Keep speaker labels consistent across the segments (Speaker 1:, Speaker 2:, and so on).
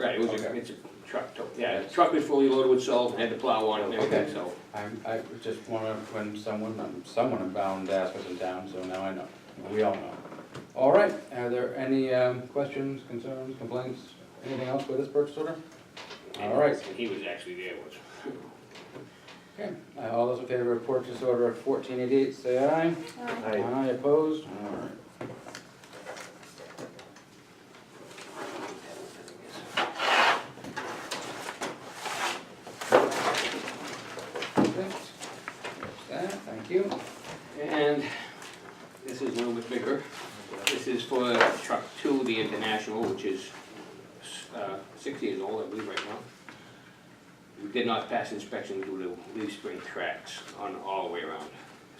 Speaker 1: Right, it was a,
Speaker 2: Okay.
Speaker 1: it's a truck, to- yeah, the truck was fully loaded with salt, and had the plow on it and everything,
Speaker 2: Okay.
Speaker 1: so.
Speaker 2: I'm, I just wanna, when someone, I'm- someone in bound asked us in town, so now I know, we all know. All right, are there any, um, questions, concerns, complaints, anything else with this purchase order? All right,
Speaker 1: And he was actually there once.
Speaker 2: okay, Uh, all those in favor of purchase order fourteen eighty-eight, say aye. Aye opposed, all right. Perfect. That, thank you.
Speaker 1: And this is a little bit bigger. This is for truck two, the International, which is uh, six years old, I believe, right now. We did not pass inspection due to leaf spring cracks on all the way around.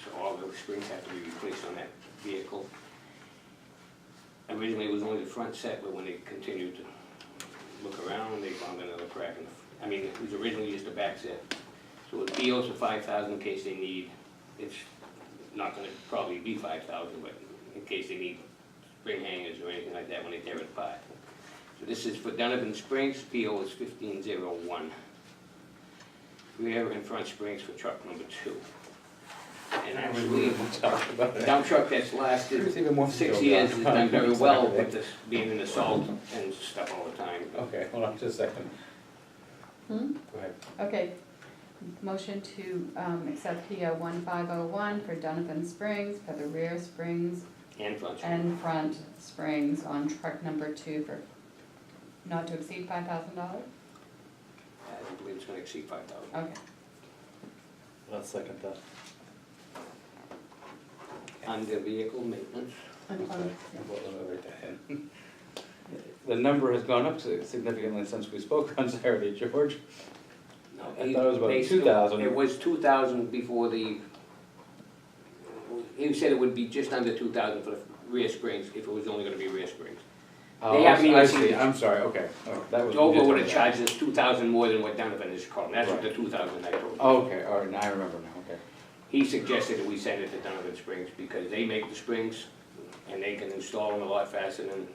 Speaker 1: So all the springs have to be replaced on that vehicle. Originally, it was only the front set, but when they continued to look around, they found another crack in the, I mean, it was originally just a back set. So it POs for five thousand in case they need, it's not gonna probably be five thousand, but in case they need spring hangers or anything like that when they tear it apart. So this is for Donovan Springs, PO is fifteen zero one. Rear and front springs for truck number two. And actually,
Speaker 2: Talk about
Speaker 1: the
Speaker 2: it.
Speaker 1: dump truck that's lasted
Speaker 2: There's even more to
Speaker 1: Six
Speaker 2: go
Speaker 1: years
Speaker 2: down.
Speaker 1: has done very well with this, being in the salt and stuff all the time.
Speaker 2: Okay, hold on just a second.
Speaker 3: Hmm?
Speaker 2: Go ahead.
Speaker 3: Okay, motion to um, accept PO one five oh one for Donovan Springs for the rear springs
Speaker 1: And front.
Speaker 3: and front springs on truck number two for not to exceed five thousand dollars?
Speaker 1: I don't believe it's gonna exceed five thousand.
Speaker 3: Okay,
Speaker 4: I'll second that.
Speaker 1: Under vehicle maintenance,
Speaker 2: Sorry,
Speaker 3: I'm fine.
Speaker 2: I thought I wrote that in. The number has gone up si- significantly since we spoke on Saturday, George.
Speaker 1: no.
Speaker 2: I
Speaker 1: he-
Speaker 2: thought it was about
Speaker 1: they still-
Speaker 2: 2,000.
Speaker 1: It was two thousand before the, he said it would be just under two thousand for the rear springs, if it was only gonna be rear springs.
Speaker 2: Oh,
Speaker 1: They haven't
Speaker 2: I
Speaker 1: even seen
Speaker 2: see,
Speaker 1: it.
Speaker 2: I'm sorry, okay, oh, that was.
Speaker 1: Dover would have charged us two thousand more than what Donovan is calling, that's what the
Speaker 2: Right.
Speaker 1: two thousand I told you.
Speaker 2: Okay, all right, now I remember now, okay.
Speaker 1: He suggested that we send it to Donovan Springs because they make the springs and they can install them a lot faster than,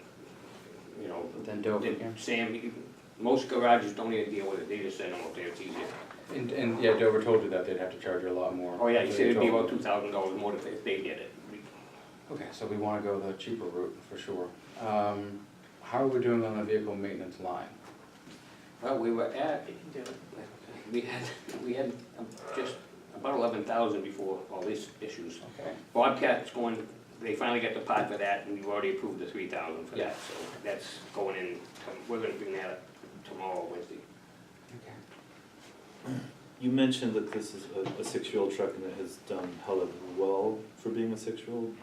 Speaker 1: you know,
Speaker 2: But Then Dover,
Speaker 1: Did
Speaker 2: yeah.
Speaker 1: Sam, you- most garages don't even deal with it, they just send them up there, it's easier.
Speaker 2: And, and, yeah, Dover told you that they'd have to charge you a lot more.
Speaker 1: Oh, yeah, he
Speaker 2: They
Speaker 1: said it'd be
Speaker 2: told
Speaker 1: about
Speaker 2: you.
Speaker 1: two thousand dollars more if if they did it.
Speaker 2: Okay, so we wanna go the cheaper route, for sure. Um, how are we doing on the vehicle maintenance line?
Speaker 1: Well, we were at, we had, we had um, just about eleven thousand before all these issues.
Speaker 2: Okay.
Speaker 1: Bobcat's going, they finally got the pot for that, and we've already approved the three thousand for
Speaker 2: Yeah.
Speaker 1: that, so that's going in, tom- we're gonna bring that up tomorrow, Wednesday.
Speaker 2: Okay.
Speaker 4: You mentioned that this is a, a six-year-old truck and it has done hella well for being a six-year-old.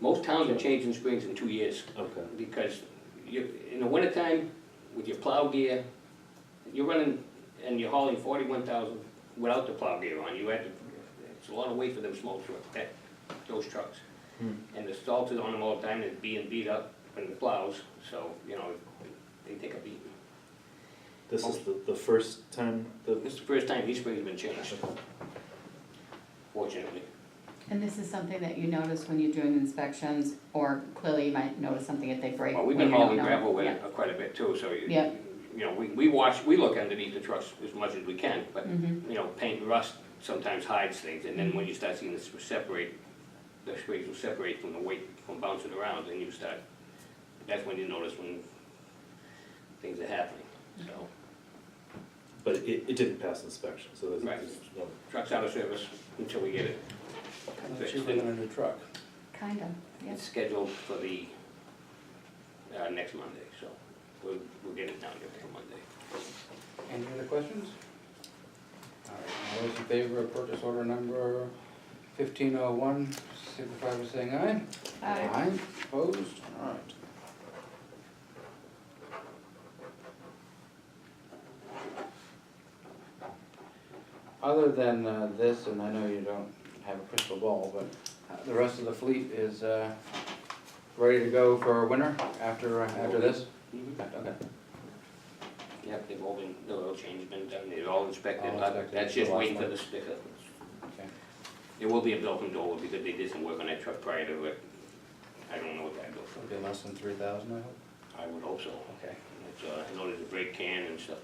Speaker 1: Most towns are changing springs in two years.
Speaker 4: Okay.
Speaker 1: because you, in the wintertime, with your plow gear, you're running, and you're hauling forty-one thousand without the plow gear on, you had to, it's a lot of weight for them small trucks, that, those trucks.
Speaker 4: Hmm.
Speaker 1: And the salt is on them all the time, and it's being beat up in the plows, so, you know, they take a beating.
Speaker 4: This is the, the first time that.
Speaker 1: This is the first time these springs have been changed, fortunately.
Speaker 3: And this is something that you notice when you're doing inspections, or clearly you might notice something if they break.
Speaker 1: Well, we've
Speaker 3: when
Speaker 1: been
Speaker 3: you don't
Speaker 1: hauling
Speaker 3: know.
Speaker 1: gravel with
Speaker 3: Yeah.
Speaker 1: it quite a bit too, so, you
Speaker 3: Yeah.
Speaker 1: you know, we, we watch, we look underneath the trucks as much as we can, but
Speaker 3: Mhm.
Speaker 1: you know, paint and rust sometimes hides things, and then when you start seeing this separate, the springs will separate from the weight, from bouncing around, and you start, that's when you notice when things are happening, so.
Speaker 4: But it, it didn't pass inspection, so there's,
Speaker 1: Right.
Speaker 4: there's no.
Speaker 1: Truck's out of service until we get it.
Speaker 2: Kinda
Speaker 1: fixed.
Speaker 2: cheaper than a new truck.
Speaker 3: Kinda,
Speaker 1: It's
Speaker 3: yes.
Speaker 1: scheduled for the, uh, next Monday, so we'll, we'll get it down there for Monday.
Speaker 2: Any other questions? All right, all those in favor of purchase order number fifteen oh one, signify by saying aye.
Speaker 3: Aye.
Speaker 2: opposed, all right. Other than uh, this, and I know you don't have a crystal ball, but uh, the rest of the fleet is uh, ready to go for winter after, uh, after this? Okay.
Speaker 1: Yep, they've all been, the oil change has been done, they're all inspected,
Speaker 2: All
Speaker 1: but
Speaker 2: Oh, inspected,
Speaker 1: that's
Speaker 2: the
Speaker 1: just
Speaker 2: last
Speaker 1: waiting for
Speaker 2: one.
Speaker 1: the sticker.
Speaker 2: Okay.
Speaker 1: There will be a bill from Dover because they did some work on that truck prior to it. I don't know what that bill from.
Speaker 2: It'll be less than three thousand, I hope.
Speaker 1: I would hope so.
Speaker 2: Okay.
Speaker 1: It's uh, in order to break can and stuff